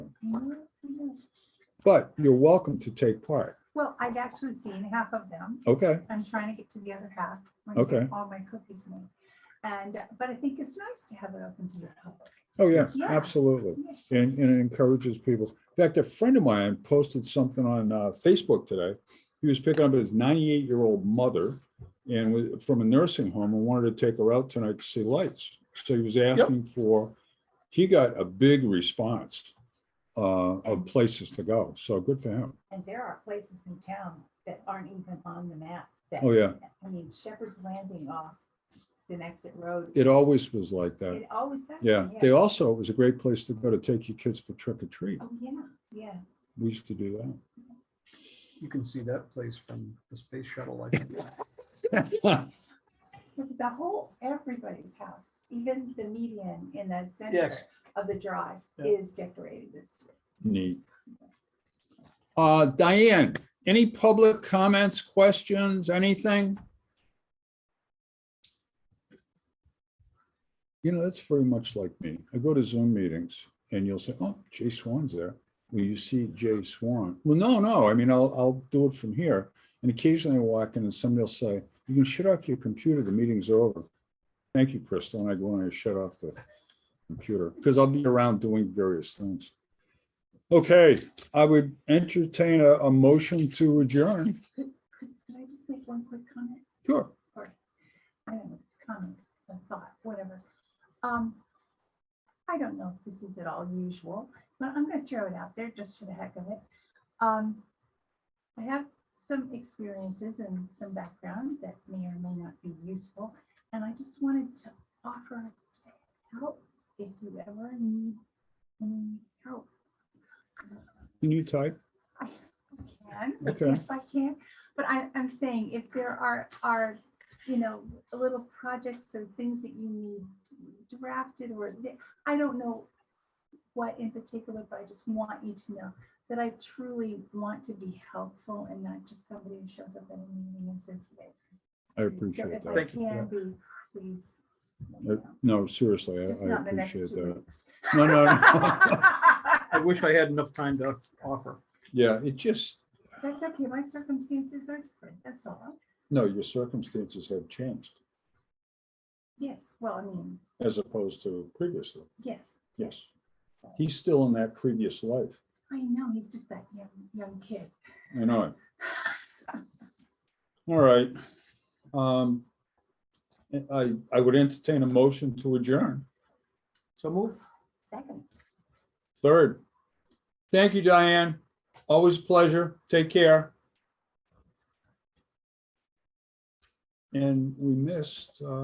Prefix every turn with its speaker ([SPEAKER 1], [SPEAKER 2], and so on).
[SPEAKER 1] But you're welcome to take part.
[SPEAKER 2] Well, I've actually seen half of them.
[SPEAKER 1] Okay,
[SPEAKER 2] I'm trying to get to the other half. when I get
[SPEAKER 1] Okay.
[SPEAKER 2] All my cookies made. And, uh, but I think it's nice to have it open to the public.
[SPEAKER 1] oh, yeah,
[SPEAKER 2] Yeah.
[SPEAKER 1] absolutely.
[SPEAKER 2] Yes.
[SPEAKER 1] And, and it encourages people. In fact, a friend of mine posted something on uh, Facebook today. He was picking up his 98-year-old mother and was from a nursing home and wanted to take her out tonight to see lights. So he was asking for, he got a big response uh, of places to go. So good for him.
[SPEAKER 2] And there are places in town that aren't even on the map. that-
[SPEAKER 1] Oh, yeah.
[SPEAKER 2] I mean, Shepherd's Landing off Senexit Road.
[SPEAKER 1] It always was like that.
[SPEAKER 2] It always has.
[SPEAKER 1] Yeah.
[SPEAKER 2] been,
[SPEAKER 1] They also, it was a great place to go to take your kids for trick or treat.
[SPEAKER 2] Oh, yeah, yeah.
[SPEAKER 1] We used to do that.
[SPEAKER 3] You can see that place from the space shuttle. I think.
[SPEAKER 2] So The whole, everybody's house, even the median in the center
[SPEAKER 3] Yes.
[SPEAKER 2] of the drive
[SPEAKER 3] Yeah.
[SPEAKER 2] is decorated this year.
[SPEAKER 1] Neat. Uh, Diane, any public comments, questions, anything? You know, that's very much like me. I go to Zoom meetings and you'll say, oh, Jay Swan's there. Will you see Jay Swan? Well, no, no. I mean, I'll, I'll do it from here. And occasionally I walk in and somebody will say, you can shut off your computer. The meeting's over. Thank you, Crystal. And I go and I shut off the computer because I'll be around doing various things. Okay, I would entertain a, a motion to adjourn.
[SPEAKER 2] Can I just make one quick comment?
[SPEAKER 1] Sure.
[SPEAKER 2] Or, I don't know, it's comment, a thought, whatever. Um, I don't know if this is at all usual, but I'm gonna throw it out there just for the heck of it. Um, I have some experiences and some background that may or may not be useful, and I just wanted to offer help if you ever need any help.
[SPEAKER 1] Can you type?
[SPEAKER 2] I can,
[SPEAKER 1] Okay.
[SPEAKER 2] if I can, but I, I'm saying if there are, are, you know, little projects or things that you need drafted or, th- I don't know what in particular, but I just want you to know that I truly want to be helpful and not just somebody who shows up at a meeting and says, yes.
[SPEAKER 1] I
[SPEAKER 2] So
[SPEAKER 1] appreciate
[SPEAKER 2] if I
[SPEAKER 1] that.
[SPEAKER 3] Thank you for
[SPEAKER 2] can be, please. let me
[SPEAKER 1] Uh,
[SPEAKER 2] know.
[SPEAKER 1] No, seriously,
[SPEAKER 2] Just
[SPEAKER 1] I- I
[SPEAKER 2] not the next
[SPEAKER 1] appreciate
[SPEAKER 2] two
[SPEAKER 1] that.
[SPEAKER 2] weeks.
[SPEAKER 1] No, no, no.
[SPEAKER 3] I
[SPEAKER 2] That's
[SPEAKER 3] wish I had enough time to offer.
[SPEAKER 1] Yeah, it just,
[SPEAKER 2] okay, my circumstances are different, that's all.
[SPEAKER 1] no, your circumstances have changed
[SPEAKER 2] Yes, well, I mean,
[SPEAKER 1] as opposed to previously.
[SPEAKER 2] yes.
[SPEAKER 1] Yes. He's still in that previous life.
[SPEAKER 2] I know, he's just that young, young kid.
[SPEAKER 1] I know it. All right. Um, I, I would entertain a motion to adjourn.
[SPEAKER 3] So move.
[SPEAKER 2] Second.
[SPEAKER 1] Third, thank you, Diane. Always a pleasure. Take care. And we missed, uh,